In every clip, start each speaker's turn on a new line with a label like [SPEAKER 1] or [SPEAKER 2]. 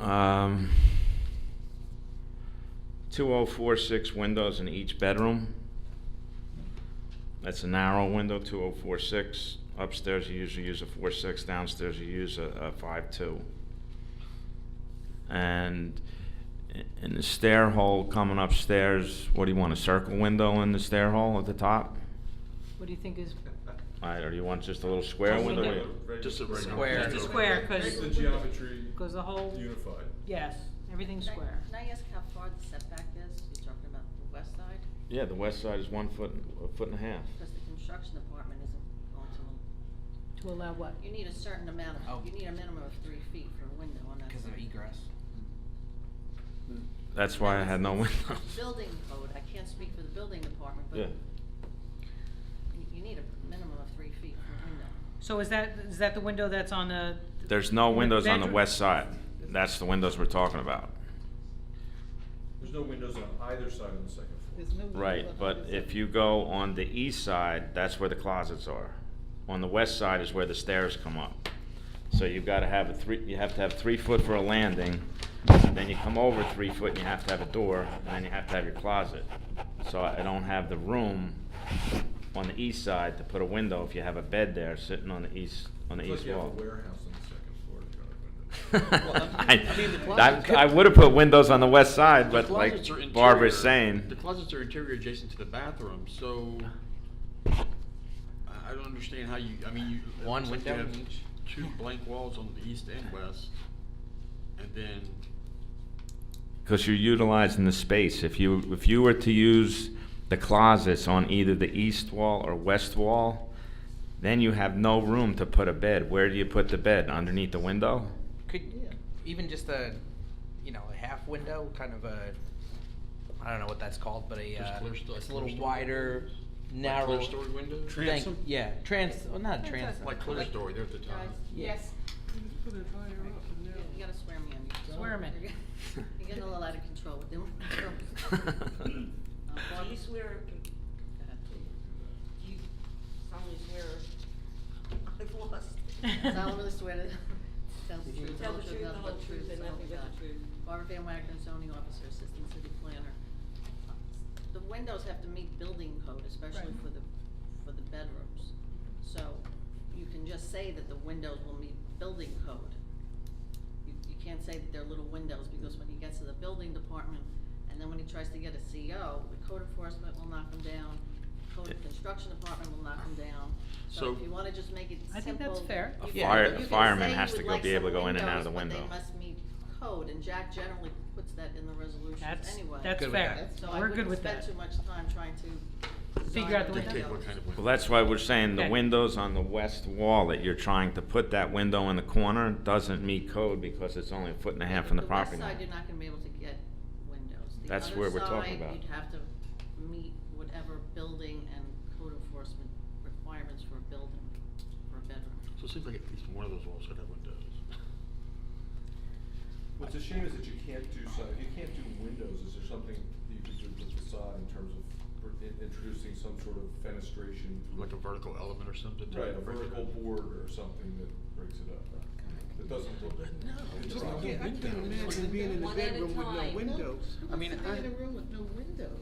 [SPEAKER 1] Um, 2046 windows in each bedroom. That's a narrow window, 2046. Upstairs, you usually use a 4.6, downstairs, you use a a 5.2. And i- in the stair hole coming upstairs, what do you want, a circle window in the stair hole at the top?
[SPEAKER 2] What do you think is,
[SPEAKER 1] All right, or do you want just a little square
[SPEAKER 2] Just a
[SPEAKER 1] window?
[SPEAKER 2] window.
[SPEAKER 3] Just a
[SPEAKER 4] Square.
[SPEAKER 2] Just a square, 'cause-
[SPEAKER 3] Make the geometry
[SPEAKER 2] because the whole,
[SPEAKER 3] unified.
[SPEAKER 2] yes, everything's
[SPEAKER 5] Can I-
[SPEAKER 2] square.
[SPEAKER 5] Can I ask how far the setback is? You're talking about the west side?
[SPEAKER 1] Yeah, the west side is one foot, a foot and a half.
[SPEAKER 5] Because the construction department isn't going to,
[SPEAKER 2] To allow what?
[SPEAKER 5] you need a certain amount
[SPEAKER 4] Oh.
[SPEAKER 5] of, you need a minimum of three feet for a window on that side.
[SPEAKER 4] Because of egress.
[SPEAKER 1] That's why I had no windows.
[SPEAKER 5] Building code, I can't speak for the building department, but
[SPEAKER 1] Yeah.
[SPEAKER 5] you- you need a minimum of three feet for a window.
[SPEAKER 2] So is that, is that the window that's on the?
[SPEAKER 1] There's no
[SPEAKER 2] the
[SPEAKER 1] windows on the
[SPEAKER 2] bedroom?
[SPEAKER 1] west side. That's the windows we're talking about.
[SPEAKER 3] There's no windows on either side on the second floor.
[SPEAKER 1] Right, but if you go on the east side, that's where the closets are. On the west side is where the stairs come up. So you've gotta have a three, you have to have three foot for a landing, and then you come over three foot and you have to have a door, and then you have to have your closet. So I don't have the room on the east side to put a window if you have a bed there sitting on the east, on the
[SPEAKER 3] It's like
[SPEAKER 1] east
[SPEAKER 3] you have a
[SPEAKER 1] wall.
[SPEAKER 3] warehouse on the second floor if you don't have windows.
[SPEAKER 4] I mean, the
[SPEAKER 1] I,
[SPEAKER 4] closet
[SPEAKER 1] I
[SPEAKER 4] could-
[SPEAKER 1] would have put windows on the west side,
[SPEAKER 6] The
[SPEAKER 1] but like
[SPEAKER 6] closets are
[SPEAKER 1] Barbara's
[SPEAKER 6] interior-
[SPEAKER 1] saying.
[SPEAKER 6] The closets are interior adjacent to the bathroom, so I I don't understand how you, I mean, you. it
[SPEAKER 4] One
[SPEAKER 6] looks like you
[SPEAKER 4] window
[SPEAKER 6] have
[SPEAKER 4] in each.
[SPEAKER 6] Two blank walls on the east and west, and then,
[SPEAKER 1] Because you're utilizing the space. If you, if you were to use the closets on either the east wall or west wall, then you have no room to put a bed. Where do you put the bed? Underneath the window?
[SPEAKER 4] Could even just a, you know, a half window, kind of a, I don't know what that's called, but a,
[SPEAKER 6] Just
[SPEAKER 4] uh,
[SPEAKER 6] clear sto-
[SPEAKER 4] it's a
[SPEAKER 6] clear
[SPEAKER 4] little
[SPEAKER 6] story.
[SPEAKER 4] wider, narrow.
[SPEAKER 6] clerestory window?
[SPEAKER 4] thing.
[SPEAKER 3] Transom?
[SPEAKER 4] Yeah, trans. Well, not transom.
[SPEAKER 6] Like clerestory, they're at the top.
[SPEAKER 5] Guys,
[SPEAKER 4] Yes.
[SPEAKER 5] you- you gotta swear me on you.
[SPEAKER 2] Swear me.
[SPEAKER 5] You're getting a little out of control with them. Uh, Barbara?
[SPEAKER 7] Do you swear,
[SPEAKER 5] Go ahead.
[SPEAKER 7] do you solemnly swear, I've lost.
[SPEAKER 5] Solemnly swear to tell the truth, the
[SPEAKER 7] Tell
[SPEAKER 5] whole truth,
[SPEAKER 7] the truth, the
[SPEAKER 5] nothing but the truth, so help
[SPEAKER 7] nothing
[SPEAKER 5] me
[SPEAKER 7] but
[SPEAKER 5] God.
[SPEAKER 7] the truth.
[SPEAKER 5] Barbara Van Wagner, zoning officer, assistant city planner. The windows have to meet building code, especially
[SPEAKER 2] Right.
[SPEAKER 5] for the, for the bedrooms. So you can just say that the windows will meet building code. You, you can't say that they're little windows, because when he gets to the building department, and then when he tries to get a CO, the code enforcement will knock him down, code
[SPEAKER 1] Yeah.
[SPEAKER 5] construction department will knock him down. So
[SPEAKER 6] So-
[SPEAKER 5] if you wanna just make it
[SPEAKER 2] I think that's
[SPEAKER 5] simple.
[SPEAKER 2] fair.
[SPEAKER 5] You
[SPEAKER 4] A
[SPEAKER 5] can-
[SPEAKER 4] fire-
[SPEAKER 5] you
[SPEAKER 4] a
[SPEAKER 5] can
[SPEAKER 1] fireman
[SPEAKER 5] say
[SPEAKER 1] has
[SPEAKER 5] you
[SPEAKER 1] to
[SPEAKER 5] would
[SPEAKER 1] go-
[SPEAKER 5] like
[SPEAKER 1] be able to
[SPEAKER 5] some
[SPEAKER 1] go in and out of the
[SPEAKER 5] windows, but
[SPEAKER 1] window.
[SPEAKER 5] They must meet code, and Jack generally puts that in the resolutions
[SPEAKER 2] That's,
[SPEAKER 5] anyway.
[SPEAKER 2] that's
[SPEAKER 4] Good with
[SPEAKER 2] fair.
[SPEAKER 4] that.
[SPEAKER 5] So I
[SPEAKER 2] We're good
[SPEAKER 5] wouldn't
[SPEAKER 2] with
[SPEAKER 5] spend
[SPEAKER 2] that.
[SPEAKER 5] too much time trying to.
[SPEAKER 2] Figure out the
[SPEAKER 5] design
[SPEAKER 6] Dictate
[SPEAKER 2] window.
[SPEAKER 6] what kind of window.
[SPEAKER 1] Well, that's why we're saying the
[SPEAKER 2] Okay.
[SPEAKER 1] windows on the west wall that you're trying to put that window in the corner doesn't meet code because it's only a foot and a half from the property
[SPEAKER 5] west side,
[SPEAKER 1] line.
[SPEAKER 5] you're not gonna be able to get windows. The
[SPEAKER 1] That's
[SPEAKER 5] other
[SPEAKER 1] where we're talking
[SPEAKER 5] side,
[SPEAKER 1] about.
[SPEAKER 5] You'd have to meet whatever building and code enforcement requirements for a building, for a bedroom.
[SPEAKER 6] So it seems like at least one of those walls should have windows.
[SPEAKER 3] What's a shame is that you can't do so, you can't do windows, is there something that you could do with the facade in terms of r- in- introducing some sort of fenestration?
[SPEAKER 6] Like a vertical element or something. to
[SPEAKER 3] Right, a
[SPEAKER 6] break it
[SPEAKER 3] vertical
[SPEAKER 6] up.
[SPEAKER 3] board or something that breaks it up. That doesn't look.
[SPEAKER 6] No,
[SPEAKER 3] it's
[SPEAKER 6] just
[SPEAKER 3] wrong.
[SPEAKER 6] a little
[SPEAKER 8] I can't
[SPEAKER 6] window.
[SPEAKER 8] imagine being in a
[SPEAKER 7] One at a
[SPEAKER 8] bedroom with no
[SPEAKER 7] time.
[SPEAKER 8] windows.
[SPEAKER 6] I mean, I.
[SPEAKER 7] room with no windows.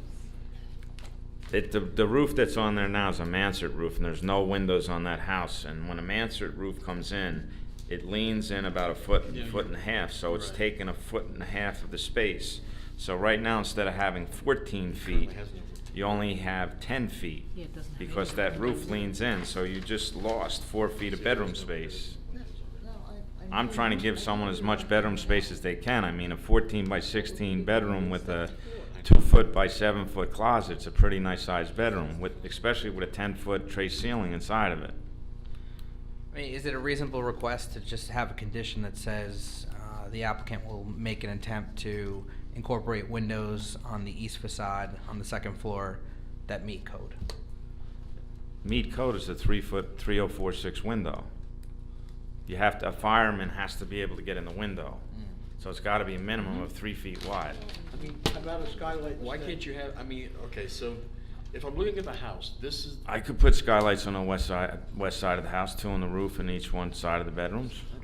[SPEAKER 1] It, the, the roof that's on there now is a mansard roof, and there's no windows on that house. And when a mansard roof comes in, it leans in about a foot,
[SPEAKER 6] Yeah,
[SPEAKER 1] foot and a
[SPEAKER 6] you're-
[SPEAKER 1] half, so it's
[SPEAKER 6] right.
[SPEAKER 1] taking a foot and a half of the space. So right now, instead of having fourteen feet,
[SPEAKER 6] Currently has no roof.
[SPEAKER 1] you only have ten feet.
[SPEAKER 2] Yeah, it doesn't have
[SPEAKER 1] Because
[SPEAKER 2] any-
[SPEAKER 1] that roof leans in, so you just lost four feet of
[SPEAKER 6] See,
[SPEAKER 1] bedroom
[SPEAKER 6] there's no
[SPEAKER 1] space.
[SPEAKER 6] windows on
[SPEAKER 7] No,
[SPEAKER 6] it.
[SPEAKER 7] I.
[SPEAKER 1] I'm trying to give someone as much bedroom space as they can. I mean, a fourteen by sixteen bedroom with a two foot by seven foot closet's a pretty nice sized bedroom with, especially with a ten foot tray ceiling inside of it.
[SPEAKER 4] I mean, is it a reasonable request to just have a condition that says uh, the applicant will make an attempt to incorporate windows on the east facade on the second floor that meet code?
[SPEAKER 1] Meat code is a three foot, three oh four six window. You have to, a fireman has to be able to get in the window. So it's gotta be a minimum of three feet wide.
[SPEAKER 6] I mean,
[SPEAKER 8] How About a skylight.
[SPEAKER 6] Why can't you have, I mean, okay, so if I'm looking at the house, this is,
[SPEAKER 1] I could put skylights on the west side, west side of the house, two on the roof and each one side of the bedrooms.
[SPEAKER 6] I